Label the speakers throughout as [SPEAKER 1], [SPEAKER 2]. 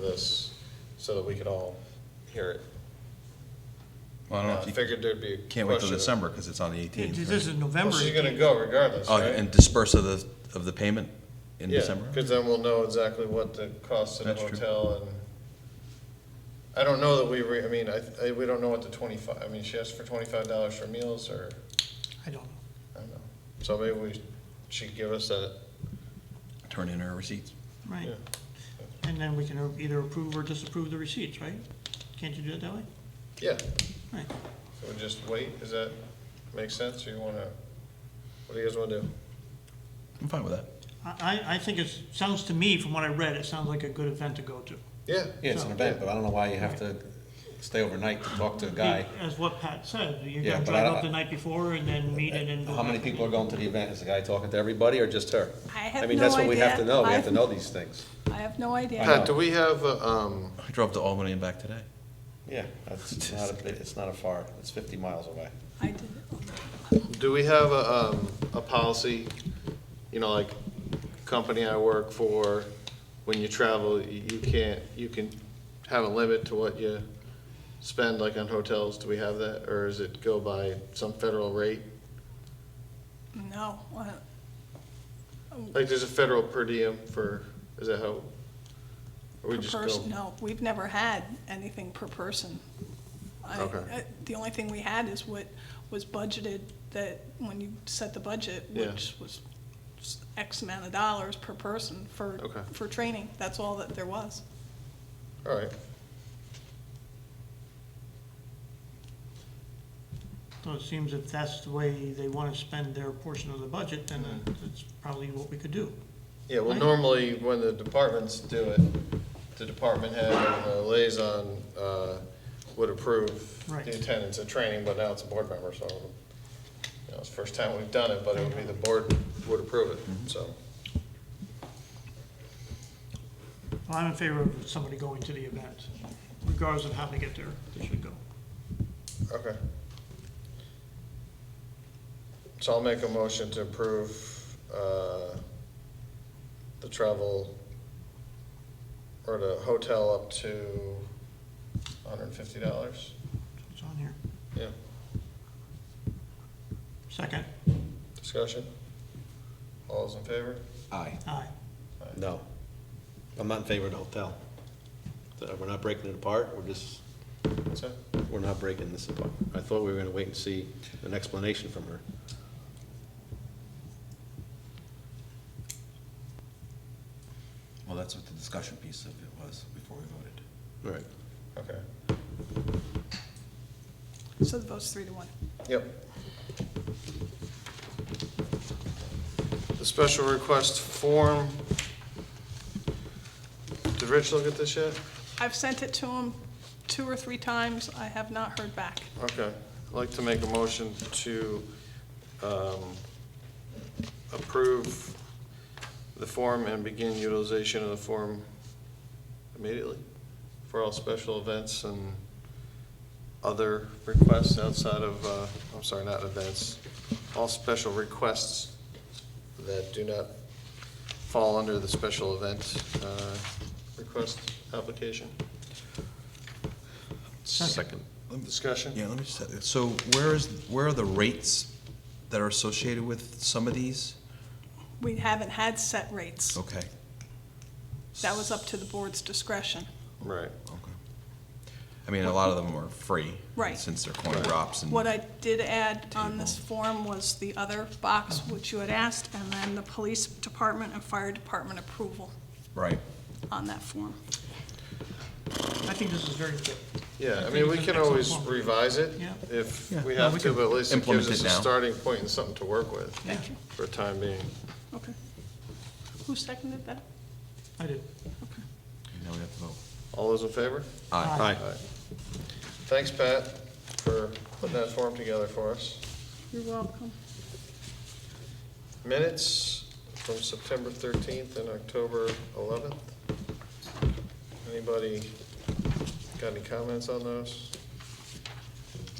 [SPEAKER 1] this so that we could all hear it.
[SPEAKER 2] Well, I
[SPEAKER 1] And
[SPEAKER 2] don't know
[SPEAKER 1] I
[SPEAKER 2] if you
[SPEAKER 1] figured there'd be a question.
[SPEAKER 2] can't wait till
[SPEAKER 1] of-
[SPEAKER 2] December because it's on the
[SPEAKER 3] Yeah,
[SPEAKER 2] 18th.
[SPEAKER 3] This is
[SPEAKER 1] Well,
[SPEAKER 3] November.
[SPEAKER 1] she's gonna go regardless,
[SPEAKER 2] Oh,
[SPEAKER 1] right?
[SPEAKER 2] and disperse of the, of the payment in December?
[SPEAKER 1] Because then we'll know exactly what the cost of the
[SPEAKER 2] That's true.
[SPEAKER 1] hotel and, I don't know that we, re- I mean, I, I, we don't know what the twenty-five, I mean, she asked for twenty-five dollars for meals or,
[SPEAKER 3] I don't know.
[SPEAKER 1] I don't know. So maybe we, she give us that,
[SPEAKER 2] Turn in our receipts.
[SPEAKER 3] Right.
[SPEAKER 1] Yeah.
[SPEAKER 3] And then we can either approve or disapprove the receipts, right? Can't you do it that way?
[SPEAKER 1] yeah,
[SPEAKER 3] Right.
[SPEAKER 1] so we just wait, does that make sense, or you wanna, what do you guys wanna do?
[SPEAKER 2] I'm fine with that.
[SPEAKER 3] I, I- I think it sounds to me, from what I read, it sounds like a good event to go to.
[SPEAKER 1] Yeah,
[SPEAKER 4] Yeah, it's an event, but I don't know why you have to stay overnight to talk to a guy.
[SPEAKER 3] As what Pat said, you're
[SPEAKER 4] Yeah,
[SPEAKER 3] gonna
[SPEAKER 4] but
[SPEAKER 3] drive
[SPEAKER 4] I don't- Uh,
[SPEAKER 3] up the night before and then meet and then. go
[SPEAKER 4] How many
[SPEAKER 3] back.
[SPEAKER 4] people are going to the event? Is the guy talking to everybody or just her?
[SPEAKER 5] I have
[SPEAKER 4] mean,
[SPEAKER 5] no
[SPEAKER 4] that's what we have to
[SPEAKER 5] idea.
[SPEAKER 4] know. We have
[SPEAKER 5] I've-
[SPEAKER 4] to know these things.
[SPEAKER 5] I have no idea.
[SPEAKER 1] Pat, do we have, a, um,
[SPEAKER 2] I drove to Albany and back today.
[SPEAKER 4] Yeah, that's not, a bit- it's not a far, it's fifty miles away.
[SPEAKER 5] I did,
[SPEAKER 1] Do we have a, um, a policy, you know, like, company I work for, when you travel, you you can't, you can have a limit to what you spend, like on hotels, do we have that, or is it go by some federal rate?
[SPEAKER 5] no. uh,
[SPEAKER 1] Like, there's a federal per diem for, is that how? Or we
[SPEAKER 5] per
[SPEAKER 1] just
[SPEAKER 5] person-
[SPEAKER 1] go,
[SPEAKER 5] No, we've never had anything per person. I-
[SPEAKER 1] Okay.
[SPEAKER 5] uh, The only thing we had is what was budgeted, that when you set the budget,
[SPEAKER 1] Yeah.
[SPEAKER 5] which was s- X amount of dollars per person for,
[SPEAKER 1] Okay.
[SPEAKER 5] for training. That's all that there was.
[SPEAKER 1] all right,
[SPEAKER 3] So it seems if that's the way they wanna spend their portion of the budget, then that's probably what we could do.
[SPEAKER 1] yeah, well,
[SPEAKER 3] Right.
[SPEAKER 1] normally, when the departments do it, the department head and the liaison, uh, would approve
[SPEAKER 3] Right.
[SPEAKER 1] the attendance at training, but now it's a board member, so, you know, it's the first time we've done it, but it would be the board would approve it, so.
[SPEAKER 3] Well, I'm in favor of somebody going to the event, regardless of how they get there, they should go.
[SPEAKER 1] Okay. So I'll make a motion to approve, uh, the travel or the hotel up to hundred and fifty dollars.
[SPEAKER 3] It's on here.
[SPEAKER 1] Yeah,
[SPEAKER 3] Second,
[SPEAKER 1] discussion? All those in favor?
[SPEAKER 4] Aye.
[SPEAKER 3] aye.
[SPEAKER 4] No. I'm not in favor of the hotel. Uh, We're not breaking it apart. We're just,
[SPEAKER 1] That's it?
[SPEAKER 4] we're not breaking this apart. I thought we were gonna wait and see an explanation from her.
[SPEAKER 2] Well, that's what the discussion piece of it was before we voted.
[SPEAKER 4] Right.
[SPEAKER 1] Okay,
[SPEAKER 5] So the vote's three to one.
[SPEAKER 1] yep. The special request form. Did Rich look at this yet?
[SPEAKER 5] I've sent it to him two or three times. I have not heard back.
[SPEAKER 1] Okay, I'd like to make a motion to um, approve the form and begin utilization of the form immediately for all special events and other requests outside of, uh, I'm sorry, not events, all special requests that do not fall under the special event uh, request application.
[SPEAKER 3] Second.
[SPEAKER 1] Discussion?
[SPEAKER 2] Yeah, let me just, so where is, where are the rates that are associated with some of these?
[SPEAKER 5] We haven't had set rates.
[SPEAKER 1] Oh.
[SPEAKER 2] Okay,
[SPEAKER 5] That was up to the board's discretion.
[SPEAKER 1] Right.
[SPEAKER 2] okay. I mean, a lot of them are free.
[SPEAKER 5] Right.
[SPEAKER 2] Since they're coin drops and.
[SPEAKER 5] What I did add on this
[SPEAKER 2] Table.
[SPEAKER 5] form was the other box, which you had asked, and then the police department and fire department approval
[SPEAKER 2] Right.
[SPEAKER 5] on that form.
[SPEAKER 3] I think this is very good.
[SPEAKER 1] Yeah, I
[SPEAKER 3] I
[SPEAKER 1] mean,
[SPEAKER 3] think
[SPEAKER 1] we
[SPEAKER 3] it's an
[SPEAKER 1] can
[SPEAKER 3] excellent
[SPEAKER 1] always
[SPEAKER 3] point.
[SPEAKER 1] revise it
[SPEAKER 3] Yeah.
[SPEAKER 1] if
[SPEAKER 2] Yeah,
[SPEAKER 1] we
[SPEAKER 2] no,
[SPEAKER 1] have
[SPEAKER 2] we
[SPEAKER 1] to,
[SPEAKER 2] can
[SPEAKER 1] but at least it
[SPEAKER 2] implement
[SPEAKER 1] gives us
[SPEAKER 2] it
[SPEAKER 1] a
[SPEAKER 2] now.
[SPEAKER 1] starting point and something to work with
[SPEAKER 3] Thank you.
[SPEAKER 1] for the time being.
[SPEAKER 5] Okay. Who seconded that?
[SPEAKER 3] I did.
[SPEAKER 2] Now we have to vote.
[SPEAKER 1] All those in favor?
[SPEAKER 2] Aye.
[SPEAKER 4] Aye.
[SPEAKER 1] Aye. Thanks, Pat, for putting that form together for us.
[SPEAKER 5] You're welcome.
[SPEAKER 1] Minutes from September 13th and October 11th. Anybody got any comments on those?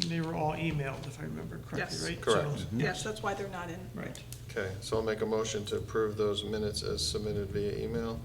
[SPEAKER 3] They were all emailed, if I remember correctly,
[SPEAKER 5] Yes.
[SPEAKER 3] right?
[SPEAKER 1] Correct.
[SPEAKER 3] So-
[SPEAKER 5] Yes, that's why they're not in.
[SPEAKER 3] Right.
[SPEAKER 1] Okay, so I'll make a motion to approve those minutes as submitted via email.